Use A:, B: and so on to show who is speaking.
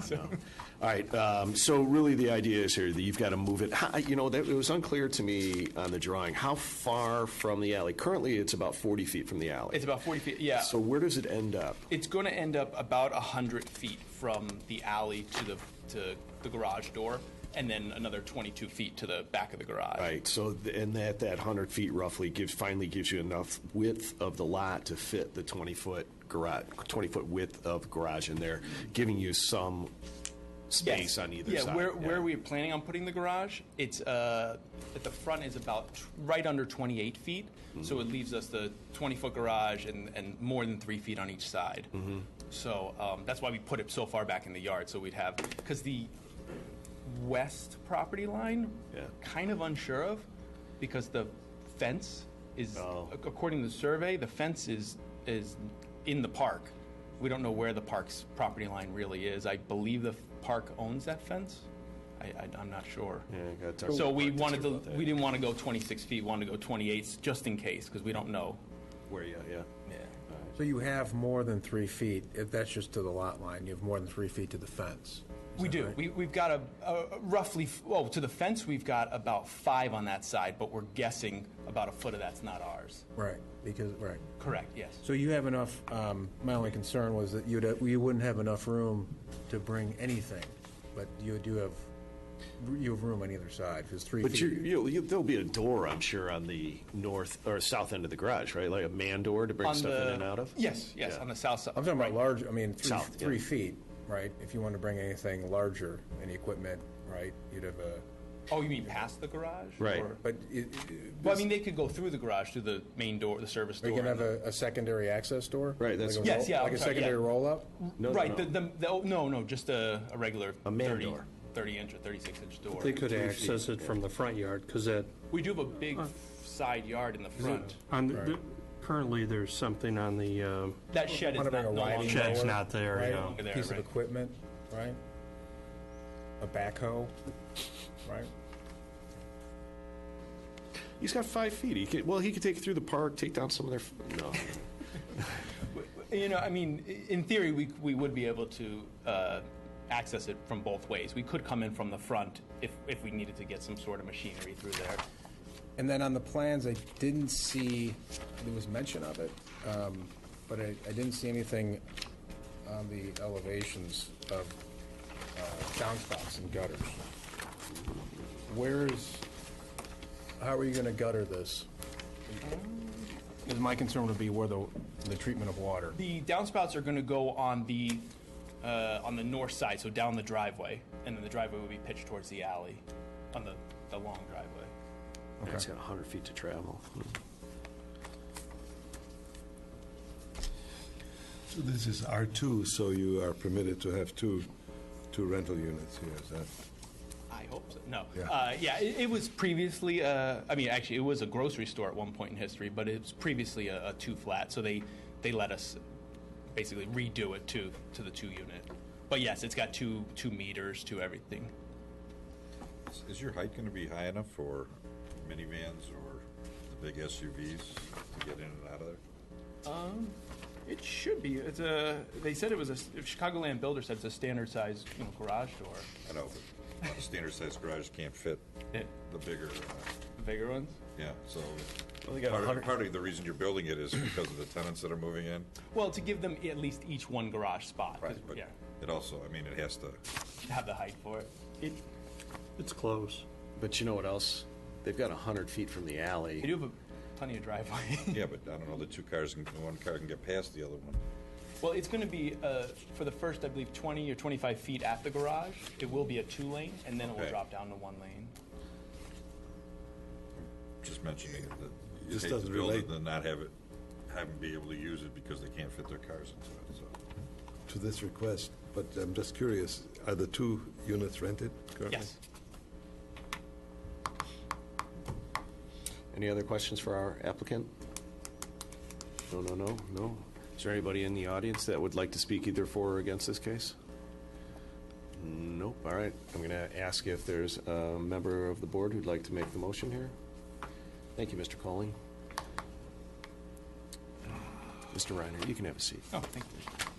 A: So-
B: no. All right, um, so really the idea is here that you've got to move it, how- you know, that, it was unclear to me on the drawing, how far from the alley? Currently, it's about 40 feet from the alley.
A: It's about 40 feet, yeah.
B: So where does it end up?
A: It's going to end up about 100 feet from the alley to the, to the garage door, and then another 22 feet to the back of the garage.
B: Right, so, th- and that, that 100 feet roughly gives, finally gives you enough width of the lot to fit the 20-foot garage, 20-foot width of garage in there, giving you some
A: Yes.
B: space on either
A: yeah,
B: side.
A: Where, where we're planning on putting the garage, it's uh, at the front is about t- right under 28 feet,
B: Mm-hmm.
A: so it leaves us the 20 foot garage and, and more than three feet on each side.
B: Mm-hmm.
A: So um, that's why we put it so far back in the yard, so we'd have because the west property line,
B: Yeah.
A: kind of unsure of, because the fence is
B: Oh.
A: ac- according to the survey, the fence is is in the park. We don't know where the park's property line really is. I believe the park owns that fence. I, I, I'm not sure.
B: Yeah, I gotta talk to
A: So
B: the
A: we
B: park
A: wanted
B: district
A: to,
B: about that.
A: we didn't want to go 26 feet, wanted to go 28 just in case, because we don't know.
B: Where, yeah, yeah.
A: Yeah.
C: So you have more than three feet, if that's just to the lot line, you have more than three feet to the fence.
A: We do. We, we've got a, a roughly, f- well, to the fence, we've got about five on that side, but we're guessing about a foot of that's not ours.
C: Right, because, right.
A: Correct, yes.
C: So you have enough, um, my only concern was that you'd, you wouldn't have enough room to bring anything, but you do have, you have room on either side, because three
B: But you,
C: feet.
B: you, you, there'll be a door, I'm sure, on the north or south end of the garage, right? Like a man door to bring
A: On
B: stuff
A: the-
B: in and out of.
A: Yes, yes,
B: Yeah.
A: on the south side.
C: I'm talking about
A: right.
C: large, I mean, three,
B: South, yeah.
C: three feet, right? If you want to bring anything larger, any equipment, right, you'd have a,
A: Oh, you mean past the garage?
B: Right.
A: Or-
C: but it-
A: Well, I mean, they could go through the garage, through the main door, the service
C: are
A: door.
C: you going to
A: and
C: have a, a secondary access door?
B: Right, that's-
C: Like a
A: Yes,
C: roll-
A: yeah,
C: Like
A: I'm
C: a
A: sorry, yeah.
C: secondary roll-up?
A: the-
B: no,
A: Right,
B: no.
A: the, the, the, oh, no, no, just a, a regular
B: A man
A: 30
B: door.
A: 30 inch or 36 inch door.
D: They could access it from the front yard, because that,
A: We do have a big side yard in the front.
D: on, the- the- currently, there's something on the, um,
A: That shed is
C: Want
A: not,
C: to bring
A: no
C: a riding
A: longer.
D: Shed's
C: mower,
D: not there,
C: right?
D: yeah.
A: Over there,
C: Piece of
A: right.
C: equipment, right? A backhoe, right?
B: He's got five feet. He could, well, he could take it through the park, take down some of their. No,
A: You know, I mean, i- in theory, we, we would be able to uh, access it from both ways. We could come in from the front if, if we needed to get some sort of machinery through there.
C: And then on the plans, I didn't see, there was mention of it, um, but I, I didn't see anything on the elevations of uh, downspouts and gutters. Where's, how are you gonna gutter this? 'Cause my concern would be where the, the treatment of water.
A: The downspouts are going to go on the uh, on the north side, so down the driveway, and then the driveway will be pitched towards the alley, on the, the long driveway.
B: he's got hundred feet to travel.
E: So This is R2, so you are permitted to have two, two rental units here, is that?
A: I hope so. No, yeah,
E: Yeah.
A: uh, yeah it, it was previously. Uh, I mean, actually, it was a grocery store at one point in history, but it was previously a, a two flat, so they they let us basically redo it to to the two unit. But yes, it's got two two meters, to everything.
F: Is- Is your height gonna be high enough for minivans or the big SUVs to get in and out of there?
A: It should be. It's a. They said it was a. Chicagoland builder said it's a standard size you know, garage door.
F: I know, but a standard sized garage can't fit the bigger, uh,
A: The bigger ones.
F: yeah, so. Part of, part of the reason you're building it is because of the tenants that are moving in,
A: Well, to give them at least each one garage spot. 'cause,
F: right, but
A: yeah,
F: it also, I mean, it has to,
A: have the height for it.
B: It,
D: it's close.
B: but you know what else? They've got hundred feet from the
A: They
B: alley.
A: do have a plenty of driveway.
F: yeah, but I don't know, the two cars, can one car can get past the other one.
A: Well, it's going to be, uh, for the first, I believe, 20 or 25 feet at the garage, it will be a two-lane, and then it will
F: Okay.
A: drop down to one lane.
F: Just mentioning that you
E: This
F: hate to
E: doesn't
F: build it
E: relate.
F: and then not have it, have them be able to use it because they can't fit their cars into it, so.
E: To this request, but I'm just curious, are the two units rented currently?
A: Yes.
B: Any other questions for our applicant? No, no, no, no. Is there anybody in the audience that would like to speak either for or against this case? Nope. All right. I'm going to ask if there's a member of the board who'd like to make the motion here. Thank you, Mr. Colling. Mr. Reiner, you can have a seat.
A: Oh, thank you.